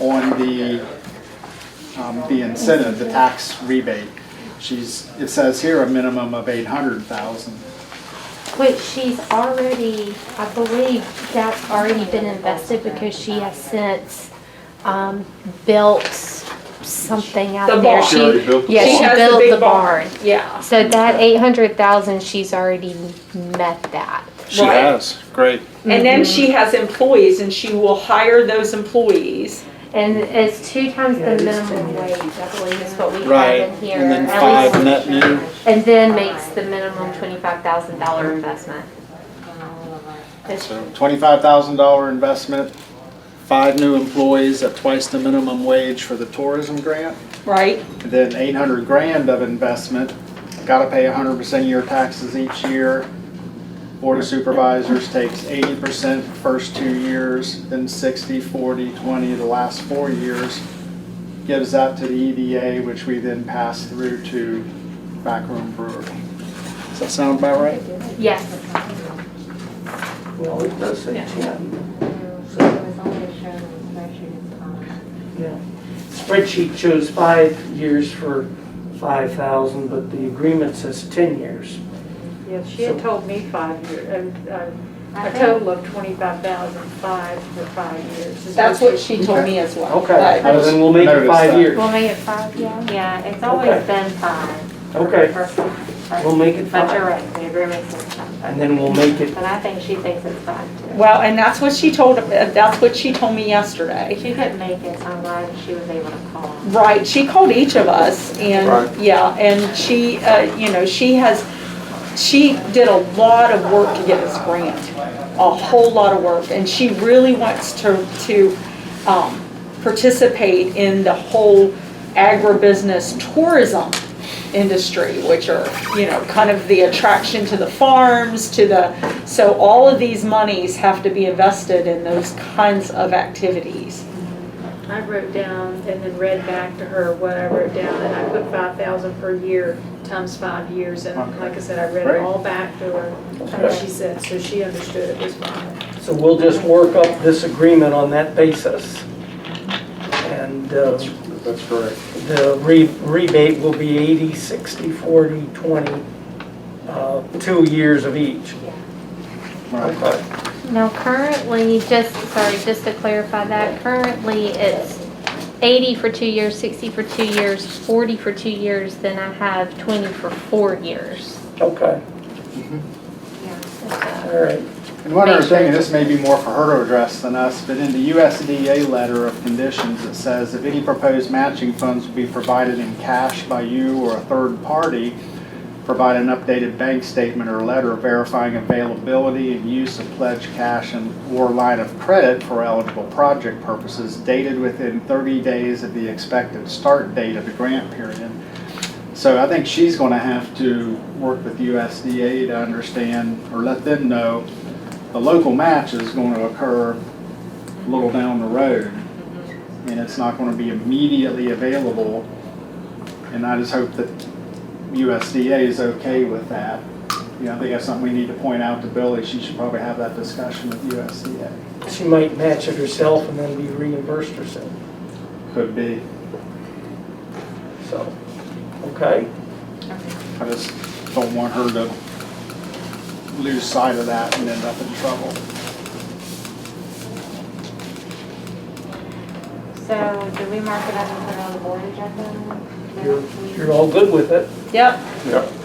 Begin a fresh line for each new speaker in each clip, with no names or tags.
on the, um, the incentive, the tax rebate. She's, it says here a minimum of eight hundred thousand.
Which she's already, I believe that's already been invested because she has since, um, built something
The
out there.
barn. She
already built the
Yeah,
She
she
has
built
big
the barn.
Yeah.
So that eight hundred thousand, she's already met that.
She
Right.
has, great.
And then
Mm-hmm.
she has employees and she will hire those employees.
And it's two times the minimum wage, I believe is what we
Right,
have in here.
and then
at
five
least.
net new.
And then makes the minimum twenty-five thousand dollar investment.
So twenty-five thousand dollar investment, five new employees at twice the minimum wage for the tourism grant,
Right.
and then eight hundred grand of investment. Gotta pay hundred percent of your taxes each year. Board of Supervisors takes eighty percent first two years, then 60, 40, 20 the last four years. Gives that to the EDA, which we then pass through to Backroom Brewer.
does that sound about right?
Yes.
Well, it does say ten. Yeah. Spreadsheet shows five years for five thousand, but the agreement says ten years.
Yeah, she had told me five years,
uh,
a total of twenty-five thousand five for five years. is
That's what she told me as well.
Okay,
But-
well, then we'll make it
Notice
five
that.
years.
make it five, yeah? Yeah, it's
Okay.
always been five.
Okay, we'll make it
But you're
five,
right, the agreement says five.
and then we'll make it,
But I think she thinks it's five too.
Well, and that's what she told, that's what she told me yesterday.
She couldn't make it online, she was able to call.
Right, she called each of us
Right.
and, yeah, and she, uh, you know, she has, she did a lot of work to get this grant. A whole lot of work, and she really wants to, to, um, participate in the whole agribusiness tourism industry, which are, you know, kind of the attraction to the farms, to the, so all of these monies have to be invested in those kinds of activities.
I wrote down and then read back to her what I wrote down, and I put five thousand per year times five years, and
Okay.
like I said, I read
Great.
it all back to her, what she said, so she understood it was five.
so we'll just work up this agreement on that basis. And, uh,
That's correct.
the re- rebate will be 80, 60, 40, 20, uh, two years of each.
Right.
Okay.
Now currently, just, sorry, just to clarify that, currently it's eighty for two years, sixty for two years, forty for two years, then I have twenty for four years.
Okay,
Yeah.
all right.
And one other thing, and this may be more for her to address than us, but in the USDA letter of conditions, it says if any proposed matching funds will be provided in cash by you or a third party, provide an updated bank statement or letter verifying availability and use of pledged cash and or line of credit for eligible project purposes dated within thirty days of the expected start date of the grant period. So I think she's gonna have to work with USDA to understand, or let them know, the local match is gonna occur a little down the road. And it's not gonna be immediately available. And I just hope that USDA is okay with that. You know, I think that's something we need to point out to Billy. She should probably have that discussion with USDA.
She might match it herself and then be reimbursed herself,
Could be.
so, okay?
I just don't want her to lose sight of that and end up in trouble.
So do we mark it up and put it on the board agenda?
You're, you're all good with it?
Yep,
Okay.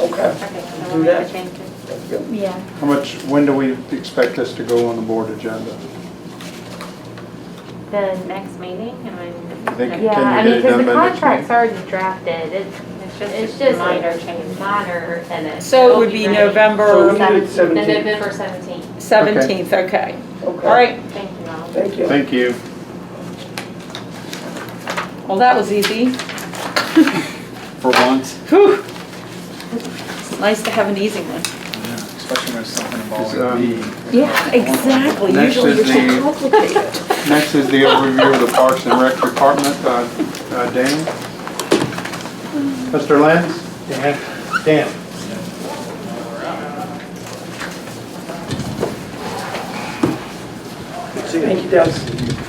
Okay, so
we'll Do make the that.
changes.
Thank you.
Yeah.
How much, when do we expect this to go on the board agenda?
The next meeting, I mean.
I think-
Yeah,
can you
I
get
mean,
it
because
done
the
by next
contract's already drafted, it's, it's just minor change, minor and it's.
So it would be
So we
November
did it
The
17.
November seventeenth,
17th, okay. All
Okay.
right,
thank you all.
Thank you.
Thank you.
well, that was easy.
For once,
Whew. It's Nice to have an easy one.
especially when it's something
Is, um,
involving me.
Yeah, exactly.
Next
Usually
is
you're so
the-
complicated.
Next is the overview of the Parks and Rec Department, Uh, uh, Dan. Mr. Lenz? Mm. Dan. Dan.
Thank you, Doug.